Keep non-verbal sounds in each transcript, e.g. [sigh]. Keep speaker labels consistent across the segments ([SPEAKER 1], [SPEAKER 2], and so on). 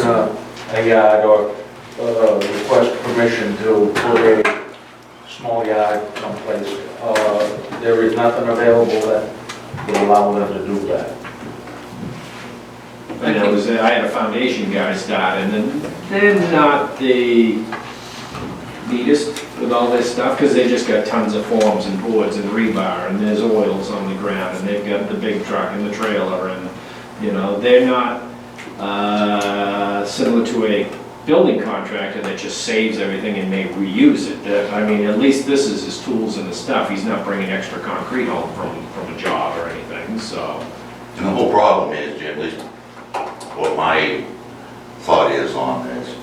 [SPEAKER 1] uh, a yard or uh, request permission to put a small yard someplace, uh, there is nothing available that would allow them to do that.
[SPEAKER 2] And I was, I had a foundation guy start, and then, they're not the neatest with all this stuff, because they just got tons of forms and boards and rebar, and there's oils on the ground, and they've got the big truck and the trailer, and, you know, they're not, uh, similar to a building contractor that just saves everything and may reuse it. That- I mean, at least this is his tools and his stuff, he's not bringing extra concrete home from, from a job or anything, so.
[SPEAKER 3] And the whole problem is, Jim, at least what my thought is on this,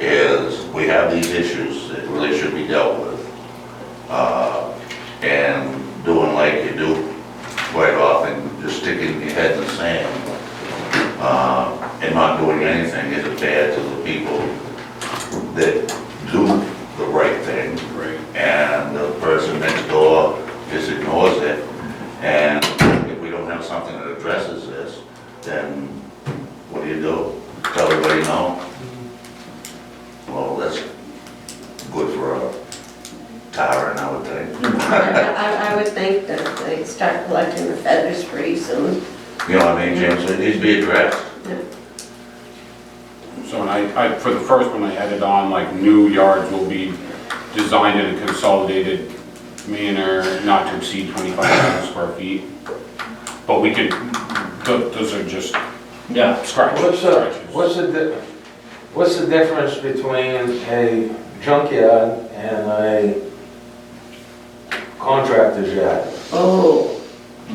[SPEAKER 3] is we have these issues that really should be dealt with. Uh, And doing like you do quite often, just sticking your head in the sand uh, and not doing anything is bad to the people that do the right thing.
[SPEAKER 2] Right.
[SPEAKER 3] And the person next door just ignores it. And if we don't have something that addresses this, then what do you do? Tell everybody no? Well, that's good for a tyrant, I would think.
[SPEAKER 4] I, I would think that they start collecting the feathers pretty soon.
[SPEAKER 3] You know what I mean, James? It needs to be addressed.
[SPEAKER 5] So when I, I, for the first one, I added on, like, new yards will be designed in a consolidated manner not to exceed 25,000 square feet. But we could, tho- those are just
[SPEAKER 2] Yeah,
[SPEAKER 5] scratches.
[SPEAKER 1] What's the,
[SPEAKER 5] scratches.
[SPEAKER 1] what's the, di- what's the difference between a junkyard and a contractor's yard?
[SPEAKER 4] Oh,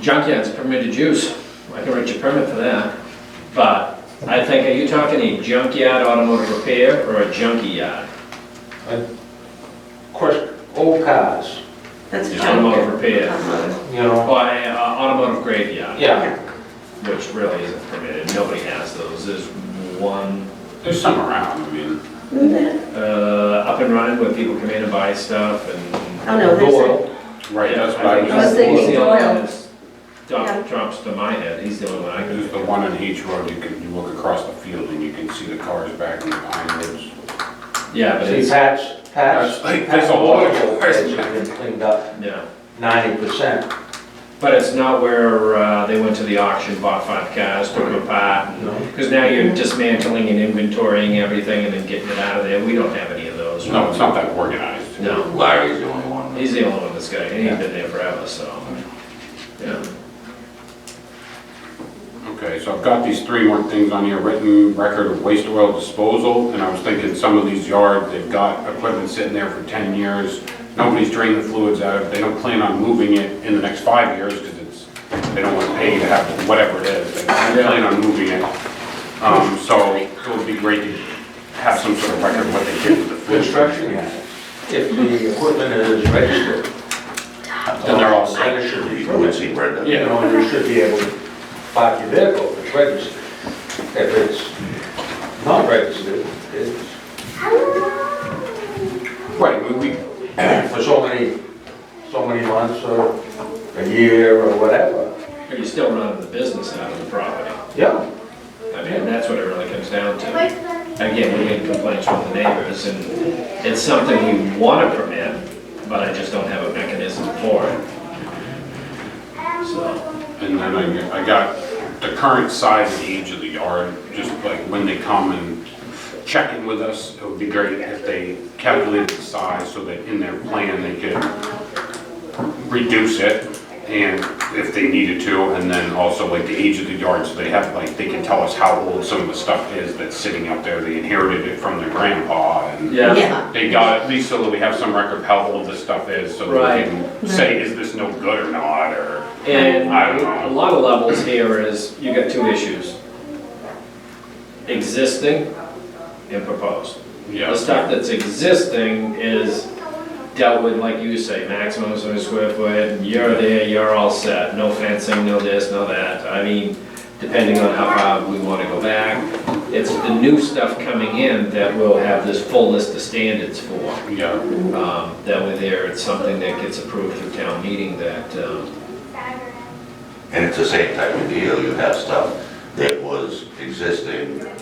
[SPEAKER 2] Junkyard's permitted use, I can write you a permit for that. But I think, are you talking a junkyard automotive repair or a junkie yard?
[SPEAKER 1] Of course, old cars,
[SPEAKER 4] that's a
[SPEAKER 2] Yeah, automotive
[SPEAKER 4] junkyard.
[SPEAKER 2] repair.
[SPEAKER 4] Automotive.
[SPEAKER 1] you know,
[SPEAKER 2] Or a uh, automotive graveyard,
[SPEAKER 1] yeah,
[SPEAKER 2] which really isn't permitted, nobody has those. There's one
[SPEAKER 5] There's some around, I mean,
[SPEAKER 4] Isn't there?
[SPEAKER 2] uh, up and running where people come in and buy stuff and.
[SPEAKER 4] Oh, no, there's a-
[SPEAKER 2] Doyle.
[SPEAKER 5] right,
[SPEAKER 2] Yeah,
[SPEAKER 5] that's what I
[SPEAKER 2] think
[SPEAKER 4] I
[SPEAKER 5] was,
[SPEAKER 4] was thinking
[SPEAKER 2] he's the only one
[SPEAKER 4] Doyle.
[SPEAKER 2] that's- Dump drops to my head, he's the only one I can.
[SPEAKER 5] there's the one on H Road, you can, you look across the field and you can see the cars back in the pine woods.
[SPEAKER 2] Yeah, but
[SPEAKER 1] see,
[SPEAKER 2] it's,
[SPEAKER 1] Pat's, Pat's.
[SPEAKER 5] That's like- that's a lot of
[SPEAKER 1] Pat's
[SPEAKER 5] cars.
[SPEAKER 1] Been cleaned up
[SPEAKER 2] yeah.
[SPEAKER 1] ninety percent,
[SPEAKER 2] But it's not where uh, they went to the auction, bought five cars, took them apart.
[SPEAKER 1] you know?
[SPEAKER 2] Because now you're dismantling and inventorying everything and then getting it out of there. We don't have any of those.
[SPEAKER 5] No, it's not that organized.
[SPEAKER 2] No.
[SPEAKER 3] Larry's the only one.
[SPEAKER 2] He's the only one that's got it. He's been there forever, so. yeah.
[SPEAKER 5] Okay, so I've got these three more things on here, written record of waste oil disposal, and I was thinking some of these yards, they've got equipment sitting there for ten years, nobody's drained the fluids out of it, they don't plan on moving it in the next five years, because it's, they don't want to pay to have whatever it is, they don't plan on moving it. Um, so it would be great to have some sort of record of what they did with the fluids.
[SPEAKER 1] Construction yard, if the equipment is registered.
[SPEAKER 5] Then they're all set.
[SPEAKER 1] Then it should be,
[SPEAKER 3] You would see Brenda.
[SPEAKER 1] you know, and you should be able to park your vehicle if it's registered. If it's not registered, it's
[SPEAKER 5] Right, we, we,
[SPEAKER 1] [clears throat] for so many, so many months or a year or whatever.
[SPEAKER 2] But you're still running the business out of the property.
[SPEAKER 1] Yeah.
[SPEAKER 2] I mean, that's what it really comes down to. Again, we get complaints from the neighbors and it's something we want to permit, but I just don't have a mechanism for it. So.
[SPEAKER 5] And then I, I got the current size and age of the yard, just like when they come and check in with us, it would be great if they calculated the size so that in their plan they could reduce it and if they needed to, and then also like the age of the yard, so they have, like, they can tell us how old some of the stuff is that's sitting out there, they inherited it from their grandpa and
[SPEAKER 4] Yeah.
[SPEAKER 5] they got it, at least so that we have some record of how old this stuff is, so that
[SPEAKER 2] Right.
[SPEAKER 5] we can say, is this no good or not, or.
[SPEAKER 2] And
[SPEAKER 5] I don't know.
[SPEAKER 2] a lot of levels here is, you got two issues. Existing and proposed. The
[SPEAKER 5] Yeah.
[SPEAKER 2] stuff that's existing is dealt with, like you say, maximum of square foot, you're there, you're all set, no fencing, no this, no that. I mean, depending on how far we wanna go back. It's the new stuff coming in that we'll have this full list of standards for.
[SPEAKER 5] Yeah.
[SPEAKER 2] Um, That way there, it's something that gets approved through town meeting that, um,
[SPEAKER 3] And it's the same type of deal, you have stuff that was existing